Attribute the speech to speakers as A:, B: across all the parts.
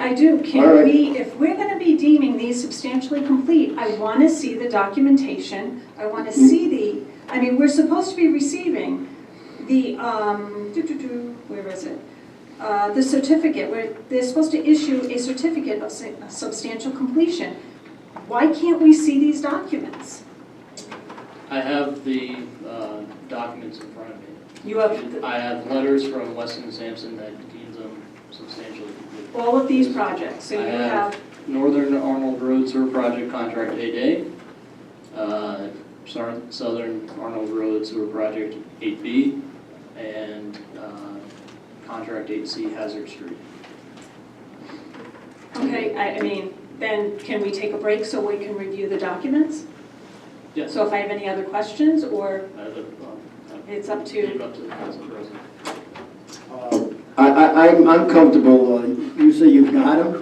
A: I do,
B: All
A: can
B: right.
A: we, if we're gonna be deeming these substantially complete, I wanna see the documentation, I wanna
B: Mm-hmm.
A: see the, I mean, we're supposed to be receiving the, um, doo-doo-doo, where is it? Uh, the certificate, where they're supposed to issue a certificate of su- of substantial completion. Why can't we see these documents?
C: I have the uh, documents in front of me.
A: You have
C: I have letters from Weston and Sampson that deems them substantially complete.
A: all of these projects, so
C: I
A: you
C: have-
A: have,
C: Northern Arnold Road Sewer Project Contract eight A, uh, Sar- Southern Arnold Road Sewer Project eight B, and uh, Contract eight C Hazard Street.
A: okay, I, I mean, then can we take a break so we can review the documents?
C: Yes, I
A: So if I have any other questions, or
C: have, um, I
A: it's up to,
C: leave up to the council president.
B: Uh, I, I, I'm, I'm comfortable, uh, you say you've got him?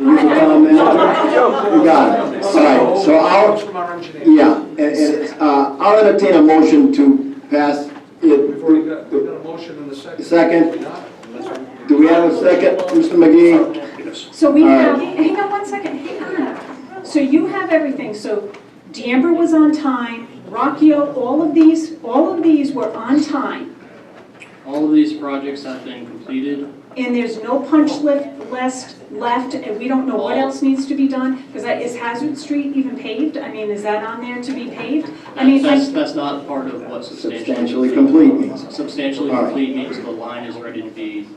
B: You're the town manager? You got it, all right, so I'll,
D: From our engineer.
B: yeah, and, and, uh, I'll entertain a motion to pass
D: We've already got, we've
B: it.
D: got a motion in the second.
B: Second.
D: Not, unless we-
B: Do we have a second, Mr. McGee?
A: so we
B: All
A: have,
B: right.
A: hang on one second, hang on. So you have everything, so D'Amber was on time, Rockio, all of these, all of these were on time.
C: All of these projects have been completed.
A: And there's no punch lift left, left, and we don't know what else needs to be done, because that, is Hazard Street even paved? I mean, is that on there to be paved? I mean,
C: That's,
A: like,
C: that's not part of what substantially
B: Substantially
C: complete
B: complete means.
C: Substantially
B: All right.
C: complete means the line is ready to be,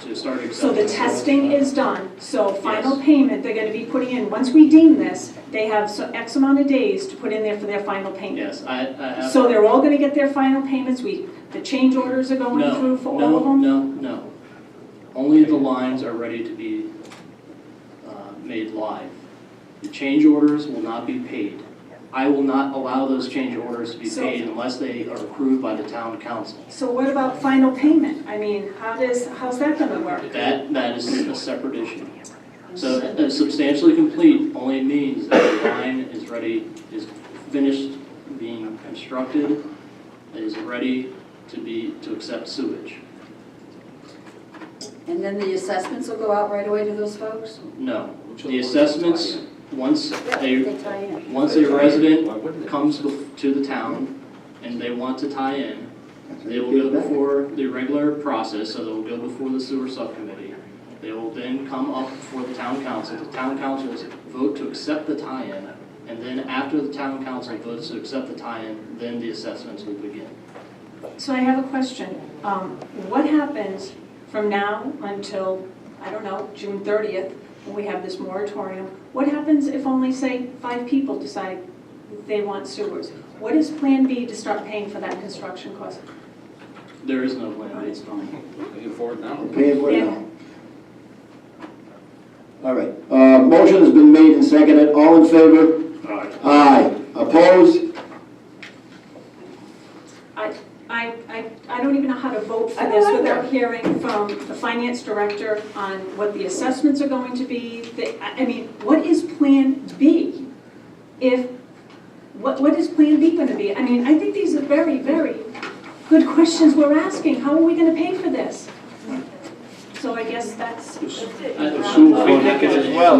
C: to start accepting.
A: so the testing is done, so final payment, they're gonna be putting in, once we deem this, they have so X amount of days to put in there for their final payment.
C: Yes, I, I have.
A: So they're all gonna get their final payments, we, the change orders are going through for all of them?
C: No, no, no, no. Only the lines are ready to be uh, made live. The change orders will not be paid. I will not allow those change orders to be
A: So-
C: paid unless they are approved by the town council.
A: So what about final payment? I mean, how does, how's that gonna work?
C: That, that is a separate issue. So uh, substantially complete only means that the line is ready, is finished being constructed, is ready to be, to accept sewage.
E: And then the assessments will go out right away to those folks?
C: No. The assessments, once a,
E: They tie in.
C: once a resident
D: Why wouldn't they?
C: comes bef- to the town and they want to tie in, they will go before the regular process, so they'll go before the sewer subcommittee. They will then come up before the town council. The town councils vote to accept the tie-in, and then after the town council votes to accept the tie-in, then the assessments will begin.
A: So I have a question. Um, what happens from now until, I don't know, June thirtieth, when we have this moratorium? What happens if only, say, five people decide they want sewers? What is Plan B to start paying for that construction cost?
C: There is no plan B.
B: We're Paying for it now. All right, uh, motion has been made and seconded, all in favor? Aye. Opposed?
A: I, I, I don't even know how to vote for this without hearing from the finance director on what the assessments are going to be. The- I I mean, what is Plan B? If, what, what is Plan B gonna be? I mean, I think these are very, very good questions we're asking. How are we gonna pay for this? So I guess that's,
F: Ross made a, motion. Ross made a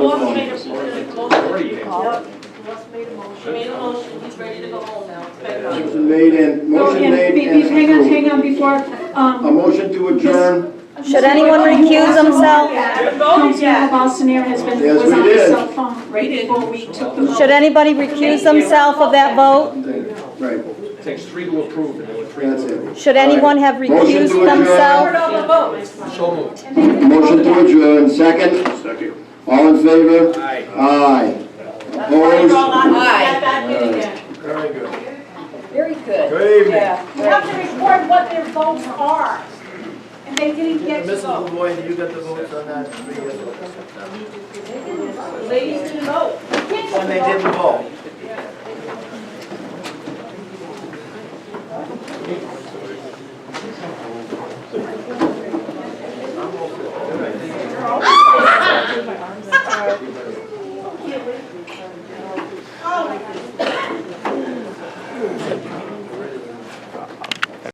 F: motion. Made a motion, he's ready to go home now. It's bedtime.
B: Motion made and,
A: no,
B: motion
A: and,
B: made
A: oh, be-
B: and
A: be- hang on,
B: approved.
A: hang on, before,
B: A
A: um.
B: motion to adjourn,
G: Should anyone recuse themselves?
A: Councilmember Balsanier has been,
B: Yes,
A: was
B: we
A: on the
B: did.
A: cell phone right before we took the vote.
G: Should anybody recuse themselves of that vote?
B: right,
D: Takes three to approve, and there were three
B: that's
D: to approve.
B: it.
G: Should anyone have
B: Motion
G: recused
B: to adjourn.
G: themselves?
F: Call the vote.
D: So moved.
B: Motion to adjourn, second? Second. All in favor? Aye. Aye.
F: That's why you're all
B: Opposed?
F: out of that back in again.
E: Very good.
B: Good evening.
E: Yeah.
F: You have to report what their votes are, and they didn't get to vote.
H: Boyd, you got the votes on that,
F: Ladies didn't vote. Kids
H: and they didn't vote.